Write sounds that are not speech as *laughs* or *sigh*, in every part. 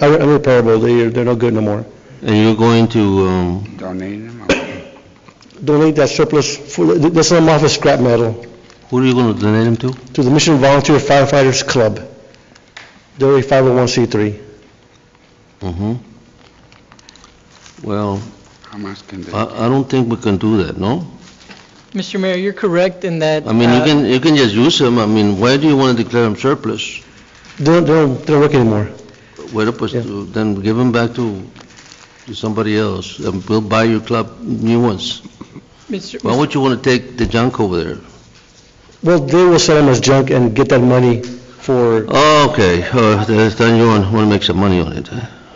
They're unrepairable, they're, they're no good no more. And you're going to, um, Donate them? Donate that surplus, for- let's sell them off as scrap metal who are you going to donate them to? to the Mission Volunteer Firefighters Club. They're a 501c3. Mm-hmm. Well, How much can they? I I don't think we can do that, no? Mr. Mayor, you're correct in that. I mean, you uh, can, you can just use them, I mean, why do you want to declare them surplus? They don't, they don't, they don't work anymore. Well, pues, Yeah. then give them back to to somebody else, and we'll buy your club new ones. Mr. Why would you want to take the junk over there? Well, they will sell them as junk and get that money for, Okay, *laughs* uh, then you want to make some money on it.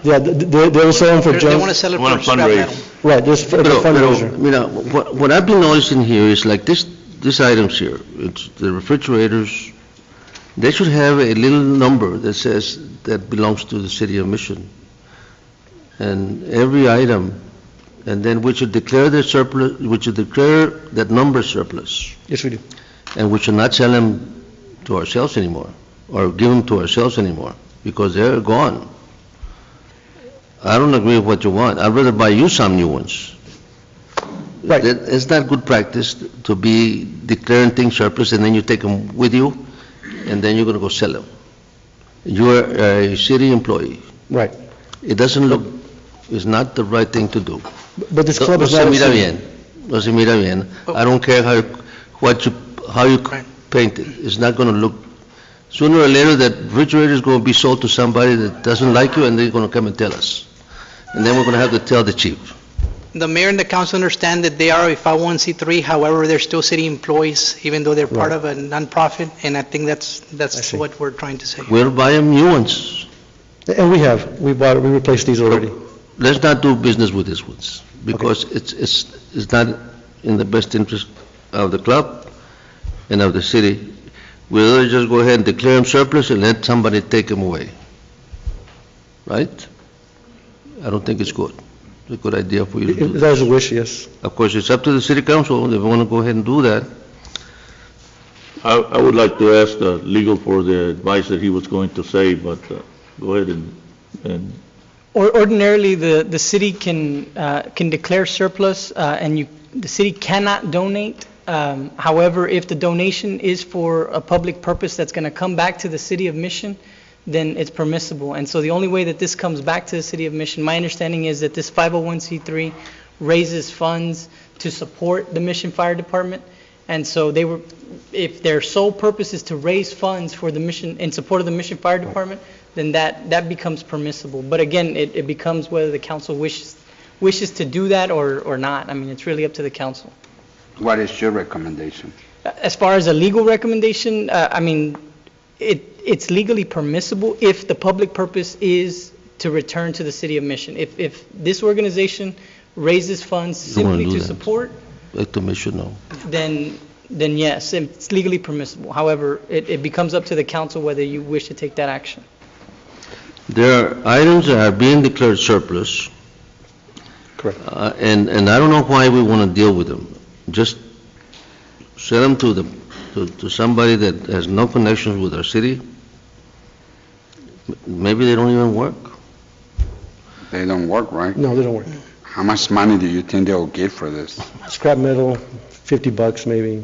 yeah, th- th- they, they will sell them for They want to junk. sell it Wanna for scrap fundraise. metal. Right, there's a Pero, pero, fundraiser. mira, what, what I've been noticing here is like this, these items here, it's the refrigerators, they should have a little number that says that belongs to the city of Mission. And every item, and then we should declare the surplus, we should declare that number surplus, Yes, we do. and we should not sell them to ourselves anymore, or give them to ourselves anymore, because they're gone. I don't agree with what you want. I'd rather buy you some new ones. Right. That- It's not good practice to be declaring things surplus and then you take them with you, and then you're going to go sell them. You're a city employee. Right. It doesn't look, it's not the right thing to do. But this No club no is se not. mira bien, no se mira bien. I don't care how, what you, how you paint it, it's not going to look, sooner or later, that refrigerator is going to be sold to somebody that doesn't like you, and they're going to come and tell us. And then we're going to have to tell the chief. The mayor and the council understand that they are a 501c3, however, they're still city employees, even though they're part Right. of a nonprofit, and I think that's, that's see. what we're trying to say. We'll buy them new ones. And we have, we bought, we replaced these already. let's not do business with these ones, because it's, it's, it's not in the best interest of the club and of the city. We'll rather just go ahead and declare them surplus and let somebody take them away. Right? I don't think it's good. It's a good idea for you to If- do if that. That is a wish, yes. Of course, it's up to the city council, if they want to go ahead and do that. I, I would like to ask the legal for the advice that he was going to say, but uh, go ahead and, and Or- Ordinarily, the, the city can, uh, can declare surplus, uh, and you, the city cannot donate. Um, However, if the donation is for a public purpose that's going to come back to the city of Mission, then it's permissible. And so the only way that this comes back to the city of Mission, my understanding is that this 501c3 raises funds to support the Mission Fire Department. And so they were, if their sole purpose is to raise funds for the mission, in support of the Mission Fire Department, then that, that becomes permissible. But again, it, it becomes whether the council wishes, wishes to do that or, or not. I mean, it's really up to the council. What is your recommendation? As far as a legal recommendation, uh, I mean, it, it's legally permissible if the public purpose is to return to the city of Mission. If, if this organization raises funds You wanna simply do to that. support, Let the commission know. then, then yes, it's legally permissible. However, it, it becomes up to the council whether you wish to take that action. There are items that are being declared surplus. Correct. Uh, And, and I don't know why we want to deal with them. Just sell them to the, to- to somebody that has no connections with our city. M- Maybe they don't even work. They don't work, right? No, they don't work. How much money do you think they'll get for this? Scrap metal, 50 bucks maybe.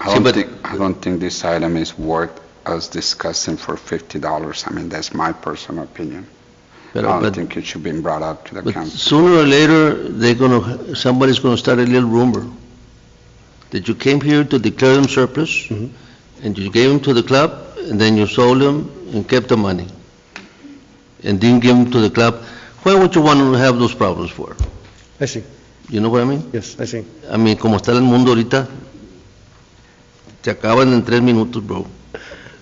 I See, don't but- think, I don't think this item is worth us discussing for fifty dollars. I mean, that's my personal opinion. I But- don't but- think it should be brought up to the But council. sooner or later, they're going to, somebody's going to start a little rumor that you came here to declare them surplus, Mhm. and you gave them to the club, and then you sold them and kept the money, and didn't give them to the club. Why would you want to have those problems for? I see, You know what I mean? yes, I see. A mí, como está el mundo ahorita, te acaban en tres minutos, bro.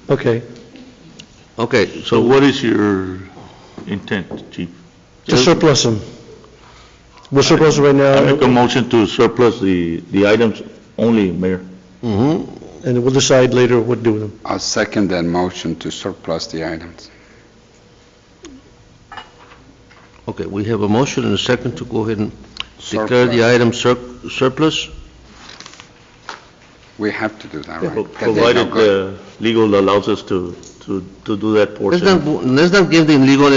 Okay. Okay, so so what is your intent, chief? To surplus them. We're surplus them right I make a now, motion to surplus the, the items only, Mayor. mhm. and we'll decide later what to do with them. I'll second that motion to surplus the items. Okay, we have a motion and a second to go ahead and declare the item sur- surplus. We have to do that, right? Pro- But they're not Provided going- the legal allows us to, to, to do that portion. Let's not, let's not give the legal